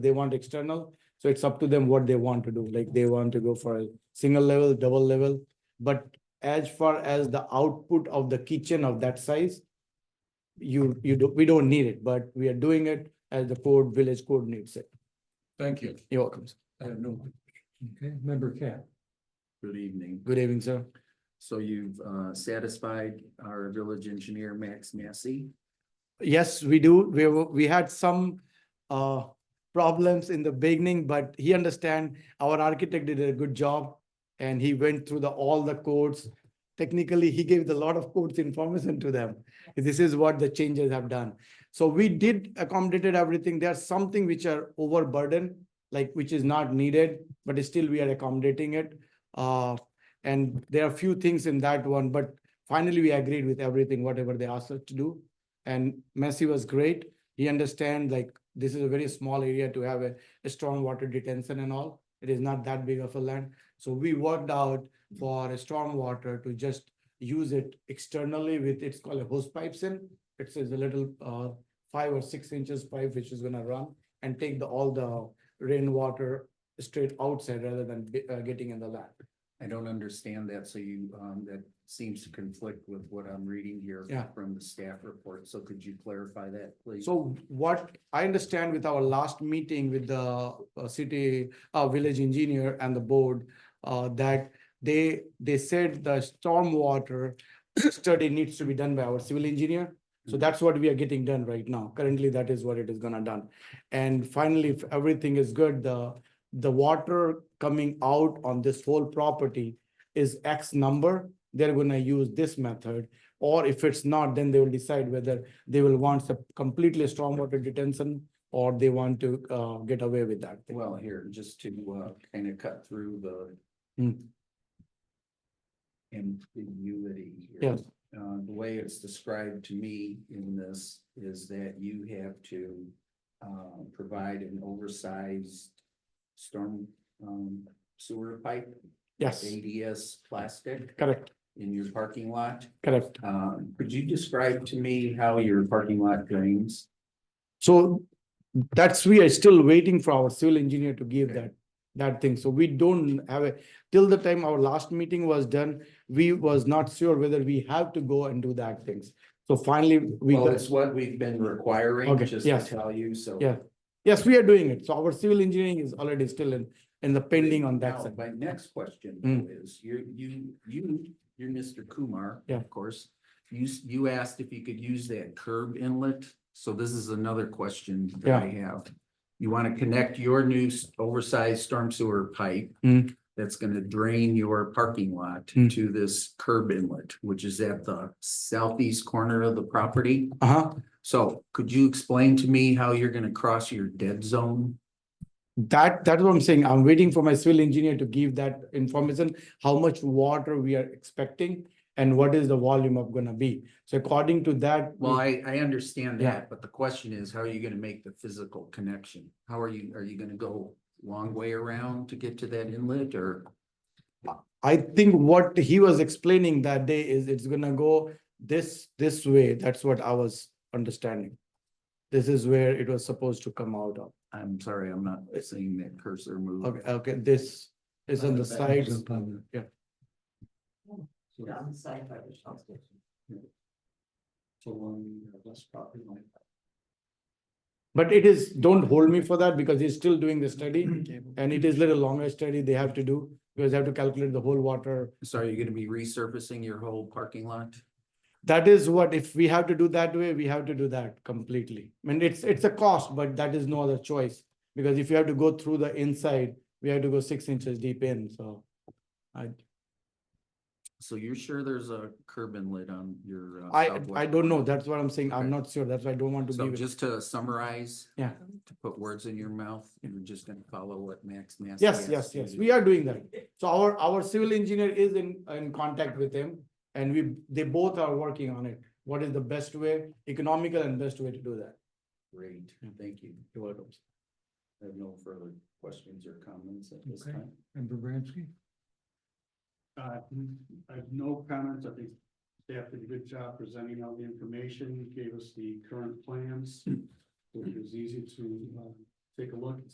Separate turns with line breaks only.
they want external. So it's up to them what they want to do, like they want to go for a single level, double level. But as far as the output of the kitchen of that size, you, you do, we don't need it, but we are doing it as the code, village code needs it.
Thank you.
You're welcome. sir.
I have no. Okay, member Cap.
Good evening.
Good evening, sir.
So you've uh, satisfied our village engineer, Max Massey?
Yes, we do. We were, we had some uh problems in the beginning, but he understand our architect did a good job. And he went through the, all the codes. Technically, he gave a lot of codes information to them. This is what the changes have done. So we did accommodated everything. There's something which are overburdened, like which is not needed, but still we are accommodating it. Uh, and there are few things in that one, but finally we agreed with everything, whatever they asked us to do. And Messi was great. He understand like this is a very small area to have a, a strong water detention and all. It is not that big of a land. So we worked out for a storm water to just use it externally with, it's called a hose pipes in. It's a little uh, five or six inches pipe which is gonna run and take the, all the rainwater straight outside rather than be- uh, getting in the land.
I don't understand that, so you, um, that seems to conflict with what I'm reading here
Yeah.
from the staff report, so could you clarify that, please?
So what I understand with our last meeting with the uh, city, uh, village engineer and the board, uh, that they, they said the stormwater study needs to be done by our civil engineer. So
Mhm.
that's what we are getting done right now. Currently, that is what it is gonna done. And finally, if everything is good, the, the water coming out on this whole property is X number, they're gonna use this method. Or if it's not, then they will decide whether they will want some completely stormwater detention or they want to uh get away with that. thing.
Well, here, just to uh, kind of cut through the
Mm,
ambiguity. here.
Yes,
Uh, the way it's described to me in this is that you have to, um, provide an oversized storm, um, sewer pipe,
yes,
ADS plastic
correct,
in your parking lot.
correct.
Um, could you describe to me how your parking lot drains?
So that's, we are still waiting for our civil engineer to give
Okay.
that, that thing. So we don't have a, till the time our last meeting was done, we was not sure whether we have to go and do that things. So finally, we.
Well,
got-
it's what we've been requiring,
Okay,
just
yes.
to tell you, so.
Yeah, Yes, we are doing it. So our civil engineering is already still in, in the pending on that
Now,
side.
My next question
Mm.
is, you, you, you, you're Mr. Kumar,
Yeah.
of course. You, s- you asked if you could use that curb inlet, so this is another question that I have. You want to connect your new s- oversized storm sewer pipe
Mm.
that's going to drain your parking lot
Mm.
to this curb inlet, which is at the southeast corner of the property.
Uh-huh.
So could you explain to me how you're going to cross your dead zone?
That, that's what I'm saying. I'm waiting for my civil engineer to give that information, how much water we are expecting and what is the volume of gonna be. So according to that, we-
Well, I, I understand
Yeah.
that, but the question is, how are you gonna make the physical connection? How are you, are you gonna go long way around to get to that inlet or?
I think what he was explaining that day is it's gonna go this, this way. That's what I was understanding. This is where it was supposed to come out of.
I'm sorry, I'm not seeing that cursor move.
Okay, okay, this is on the sides. Yeah.
Yeah, on the side by the shop station. uh,
So long, less property line.
But it is, don't hold me for that because he's still doing the study and it is little longer study they have to do because they have to calculate the whole water
So are you gonna be resurfacing your whole parking lot?
That is what, if we have to do that way, we have to do that completely. I mean, it's, it's a cost, but that is no other choice. Because if you have to go through the inside, we have to go six inches deep in, so. I,
So you're sure there's a curb inlet on your? uh,
I,
southwest
I don't know,
corner?
that's what I'm saying, I'm
Okay.
not sure, that's why I don't want to
So
give it.
just to summarize.
Yeah.
To put words in your mouth, you're just gonna follow what Max Massey.
Yes, yes,
asked you
yes,
to
we are doing that. So our, our civil engineer is in, in contact with him. And we, they both are working on it. What is the best way, economical and best way to do that?
Great,
Yeah.
thank you.
You're welcome.
I have no further questions or comments at this
Okay.
time.
Member Bransky?
Uh, I have no comments. I think staff did a good job presenting all the information, gave us the current plans. Which was easy to, uh, take a look and